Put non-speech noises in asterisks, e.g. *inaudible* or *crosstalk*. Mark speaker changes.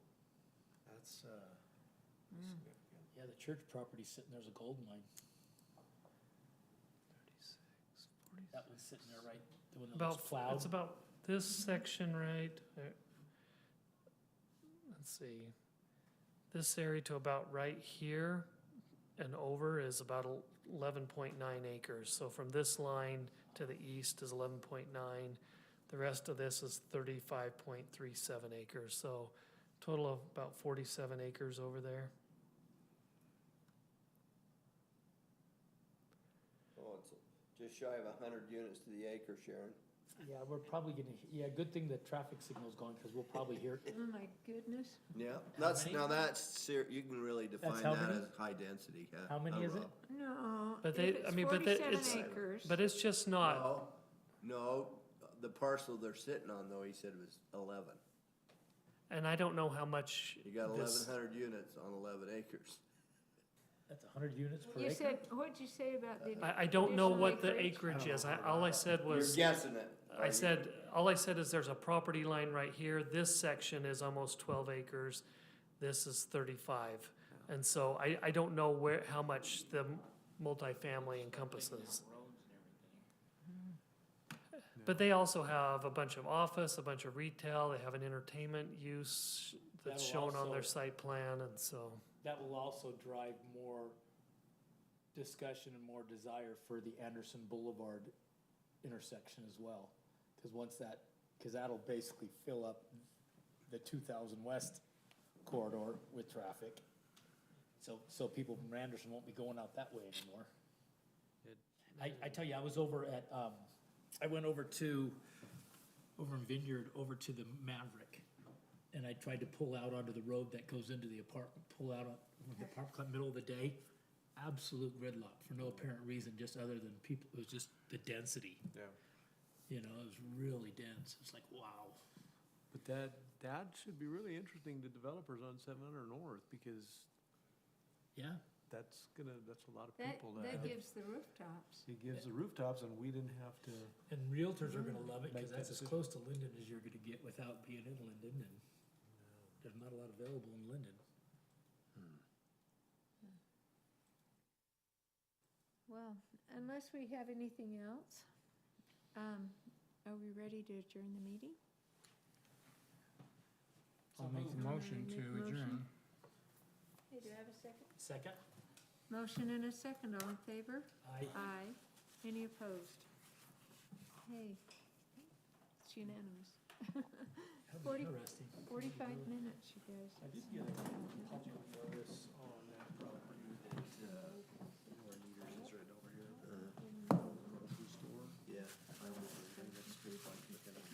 Speaker 1: that's, uh,
Speaker 2: Hmm.
Speaker 1: significant.
Speaker 3: Yeah, the church property sitting there's a gold mine. That one's sitting there, right? The one that was
Speaker 4: About,
Speaker 3: plowed.
Speaker 4: it's about this section, right? uh, Let's see. This area to about right here and over is about el- 11.9 acres. So from this line to the east is 11.9. The rest of this is 35.37 acres. So total of about 47 acres over there.
Speaker 5: Oh, it's just shy of a hundred units to the acre, Sharon.
Speaker 3: Yeah, we're probably gonna, yeah, good thing the traffic signal's going, cause we'll probably hear it.
Speaker 2: Oh, my goodness.
Speaker 5: Yeah,
Speaker 3: How
Speaker 5: that's,
Speaker 3: many?
Speaker 5: now that's ser, you can really define
Speaker 3: how
Speaker 5: that
Speaker 3: many?
Speaker 5: as high density, yeah.
Speaker 3: How many
Speaker 5: no
Speaker 3: is it?
Speaker 5: rock.
Speaker 2: No.
Speaker 4: But they-
Speaker 2: if
Speaker 4: I mean, but they- it's-
Speaker 2: Forty-seven acres.
Speaker 4: But it's just not,
Speaker 5: No, no, the parcel they're sitting on though, he said was eleven.
Speaker 4: and I don't know how much.
Speaker 5: You got eleven
Speaker 4: this-
Speaker 5: hundred units on eleven acres.
Speaker 3: That's hundred units per
Speaker 2: You
Speaker 3: acre?
Speaker 2: said, what'd you say about the?
Speaker 4: I, I don't know
Speaker 2: additional
Speaker 4: what the
Speaker 2: acreage?
Speaker 4: acreage
Speaker 3: I
Speaker 4: is. I,
Speaker 3: don't know.
Speaker 4: all I said
Speaker 5: You're
Speaker 4: was,
Speaker 5: guessing it.
Speaker 4: I
Speaker 3: Uh,
Speaker 4: said, all I said is there's a property line right here. This section is almost twelve acres. This is thirty-five. And so I, I don't know where, how much the multifamily encompasses. But they also have a bunch of office, a bunch of retail, they have an entertainment use that's
Speaker 3: That'll
Speaker 4: shown on their
Speaker 3: also-
Speaker 4: site plan and so.
Speaker 3: That will also drive more discussion and more desire for the Anderson Boulevard intersection as well. Cause once that, cause that'll basically fill up the two thousand west corridor with traffic. So, so people from Anderson won't be going out that way anymore. I, I tell you, I was over at, um, I went over to, over in Vineyard, over to the Maverick. And I tried to pull out onto the road that goes into the apartment, pull out on the park club middle of the day. Absolute gridlock for no apparent reason, just other than people, it was just the density.
Speaker 1: Yeah.
Speaker 3: You know, it was really dense. It's like, wow.
Speaker 6: But that, that should be really interesting to developers on seven hundred north, because
Speaker 3: Yeah,
Speaker 6: that's gonna, that's a lot of
Speaker 2: That,
Speaker 6: people
Speaker 2: that
Speaker 6: that,
Speaker 2: gives the rooftops.
Speaker 6: it gives the rooftops and we didn't have to,
Speaker 3: and realtors are gonna love it,
Speaker 6: Make
Speaker 3: cause
Speaker 6: that
Speaker 3: that's as
Speaker 6: decision.
Speaker 3: close to Linden as you're gonna get without being in Linden, and there's not a lot available in Linden.
Speaker 2: Well, unless we have anything else, um, are we ready to adjourn the meeting?
Speaker 7: I'll make the motion
Speaker 2: Make
Speaker 7: to
Speaker 2: motion.
Speaker 7: adjourn.
Speaker 2: Hey, do I have a second?
Speaker 3: Second?
Speaker 2: Motion and a second, all in favor?
Speaker 3: I.
Speaker 2: Aye. Any opposed? Hey, it's unanimous. *laughs*
Speaker 3: That was
Speaker 2: Forty-
Speaker 3: interesting.
Speaker 2: Forty-five minutes, you guys.
Speaker 3: I did get a project for